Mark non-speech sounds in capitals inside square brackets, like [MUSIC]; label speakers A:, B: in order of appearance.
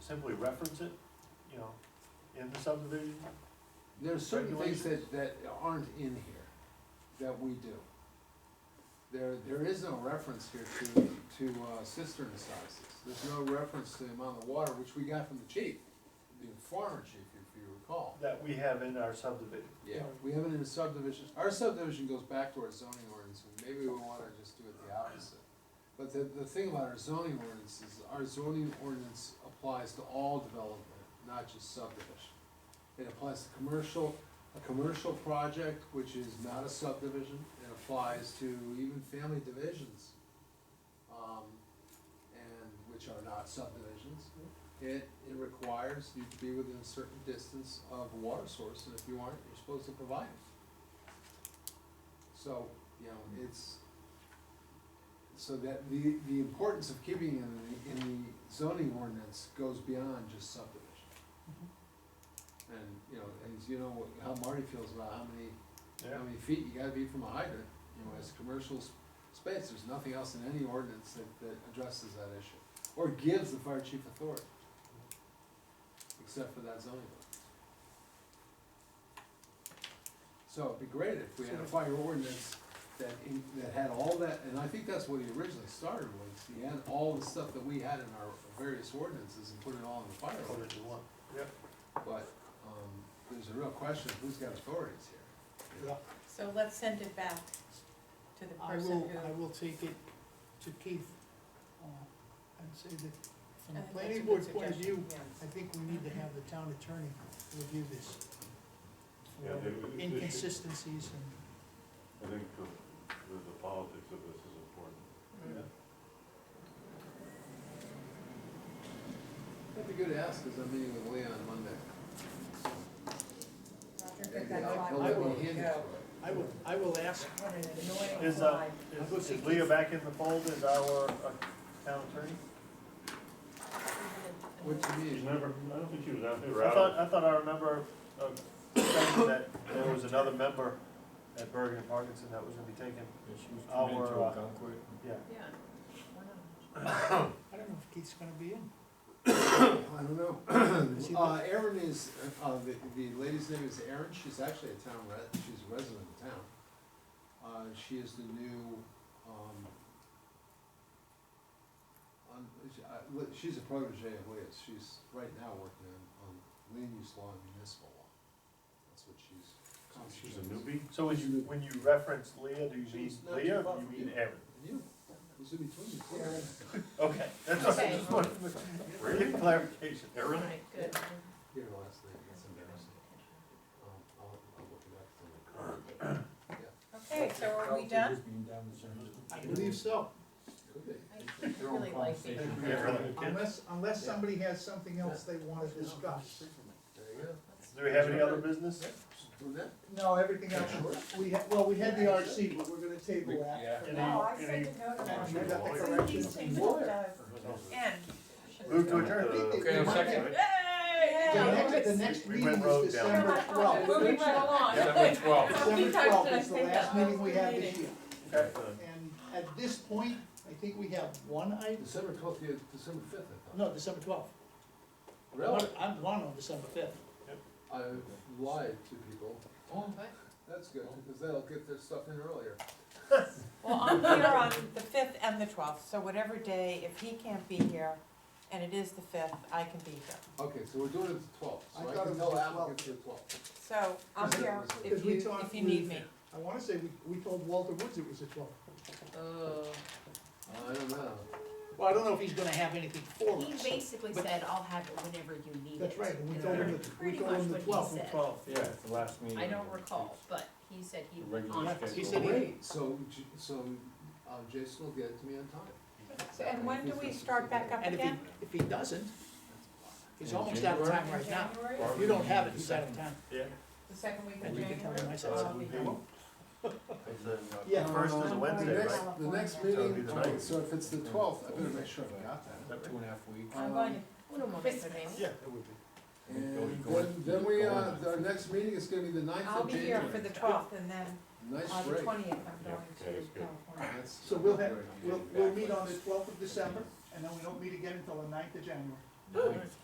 A: simply reference it, you know, in the subdivision?
B: There's certain things
A: Regulations?
B: that, that aren't in here that we do. There, there is no reference here to, to uh, cistern sizes. There's no reference to the amount of water, which we got from the chief, the former chief, if you recall.
A: That we have in our subdivision.
B: Yeah, we have it in a subdivision. Our subdivision goes back to our zoning ordinance, and maybe we wanna just do it the opposite. But the, the thing about our zoning ordinance is our zoning ordinance applies to all development, not just subdivision. It applies to commercial, a commercial project, which is not a subdivision. It applies to even family divisions, um, and, which are not subdivisions. It, it requires you to be within a certain distance of a water source, and if you aren't, you're supposed to provide it. So, you know, it's, so that, the, the importance of keeping it in the, in the zoning ordinance goes beyond just subdivision. And, you know, and you know how Marty feels about how many,
A: Yeah,
B: how many feet you gotta be from a hydrant, you know, as commercial s- space, there's nothing else in any ordinance that, that addresses that issue. Or gives the fire chief authority, except for that zoning ordinance. So it'd be great if we had a fire ordinance that, in- that had all that, and I think that's what he originally started with, he had all the stuff that we had in our various ordinances and put it all in the fire
A: put it
B: ordinance.
A: in one. Yep.
B: But, um, there's a real question, of who's got authorities here?
C: So let's send it back to the
D: I
C: person
D: will, I
C: who, uh,
D: will take it to Keith, uh, and say that from the
C: I think Uh, that's a
D: planning
C: good
D: board's point of view,
C: suggestion,
D: I think we need to have the town attorney review this. for
E: Yeah, they- they- they should-
D: Inconsistencies and,
E: I think the, the, the politics of this is important.
B: That'd be good to ask, cause I'm meeting with Leon Monday.
C: yes.
B: Maybe
C: That's
B: I'll-
C: why
B: he'll
C: we
B: let me
C: need to
B: handle
C: go.
B: it.
D: I will, I will ask,
C: What an annoying
A: Is, uh,
C: fly.
A: is is Leah back in the fold as our uh, town attorney?
B: What do you
E: She's
B: mean?
E: never, I don't think she was out there,
A: I thought,
E: out.
A: I thought I remember, uh, saying that there was another member at Bergen and Parkinson that was gonna be taken,
F: Yeah, she was
A: Our,
F: committed to
A: uh,
F: Gunkwit.
A: yeah.
C: Yeah.
D: I don't know if Keith's gonna be in.
B: I don't know. [CLEARS THROAT] Uh, Erin is, uh, the, the lady's name is Erin, she's actually a town re- she's a resident of town. Uh, she is the new, um, on, she- I- uh, li- she's a protege of Leah's, she's right now working on, on land use law and municipal law. That's what Oh, she's.
E: She's a newbie?
A: So when you, when you reference Leah, do you mean
B: She's not
A: Leah,
B: too far
A: or
B: from
A: you mean
B: you.
A: Erin?
B: And you, who's in between you?
A: Okay, that's what I
C: Okay.
A: just wanted to get clarification.
E: Erin?
C: Right, good.
B: [LAUGHS] Your last name, that's embarrassing. Um, I'll, I'll look it up for you. [CLEARS THROAT]
C: Okay, so are we done?
F: Just being down the center.
D: I believe so,
B: Could be.
C: I really like these.
F: Their own
A: Yeah, really.
F: conversation.
D: unless, unless somebody has something else they wanna discuss.
B: There you go.
A: Do we have any other business?
B: Doing that?
D: No, everything else, we had, well, we had the RC, but we're gonna table that. for
A: Yeah.
D: now.
C: No, I sent a note
D: And
C: on
D: you
C: it.
D: got the
C: Send these
D: corrections.
C: things to end.
A: Move to adjourn.
D: Okay,
F: I'm
D: second. The next, the next
A: We
D: meeting
A: went rogue
D: is
A: down.
D: December twelfth.
C: Moving right along.
F: Seven twelve.
C: How many
D: December twelfth
C: times did I
D: is the
C: say that?
D: last meeting we have this
C: Meeting.
D: year.
A: Okay.
D: And at this point, I think we have one item,
B: December twelfth, yeah, December fifth, I thought.
D: no, December twelfth.
B: Really?
D: I'm one on December fifth.
B: I lied to people. Oh, that's good, because they'll get their stuff in earlier.
C: Well, I'm here on the fifth and the twelfth, so whatever day, if he can't be here, and it is the fifth, I can be here.
B: Okay, so we're doing it the twelfth,
D: I
B: so I
D: thought
B: can
D: it
B: tell
D: was the
B: applicants the twelfth.
C: So I'm here if
D: Because we
C: you,
D: talked
C: if you need
D: with-
C: me.
D: I wanna say, we, we told Walter Woods it was the twelfth.
B: I don't know.
D: Well, I don't know if he's gonna have anything for
G: He
D: us.
G: basically
D: But-
G: said, I'll have it whenever you need it.
D: That's right, and we
G: And
D: told him,
G: that's
D: the- we
G: pretty
D: told
G: much
D: him the
G: what he
D: twelfth.
G: said.
F: Twelve, yeah, it's the last meeting.
G: I don't recall, but he said he
F: The
G: would
F: regular
G: honor
F: schedule.
G: it.
D: He said he-
B: Great, so, J- so, um, Jason will get it to me on time.
C: So- And when do we start back up
D: And if he,
C: again?
D: if he doesn't, he's
F: In
D: almost out of
F: January?
D: time right now.
C: January?
D: If you don't have it, he's out of time.
A: Yeah.
C: The second week of
D: And you can tell
C: January?
D: him I said
C: I'll
D: so.
C: be here.
D: Yeah.
A: First is a Wednesday, right?
C: California.
B: The next
A: That'll be
B: meeting,
A: the
B: all right,
A: ninth.
B: so if it's the twelfth, I better make sure I've got that. Um,
F: Two and a half weeks.
C: I'm going to Puno
A: Yeah, it would be.
B: And then, then we, uh, our next meeting is gonna be the ninth
C: I'll
B: of
C: be here
B: January.
C: for the twelfth and then
B: Nice
C: on Uh, the
B: break.
C: twentieth, I'm
E: Yeah,
C: going to
E: okay, that's good.
C: California.
B: That's-
D: So we'll have, we'll, we'll meet on the twelfth of December, and then we don't meet again until the ninth of January.
F: Nice.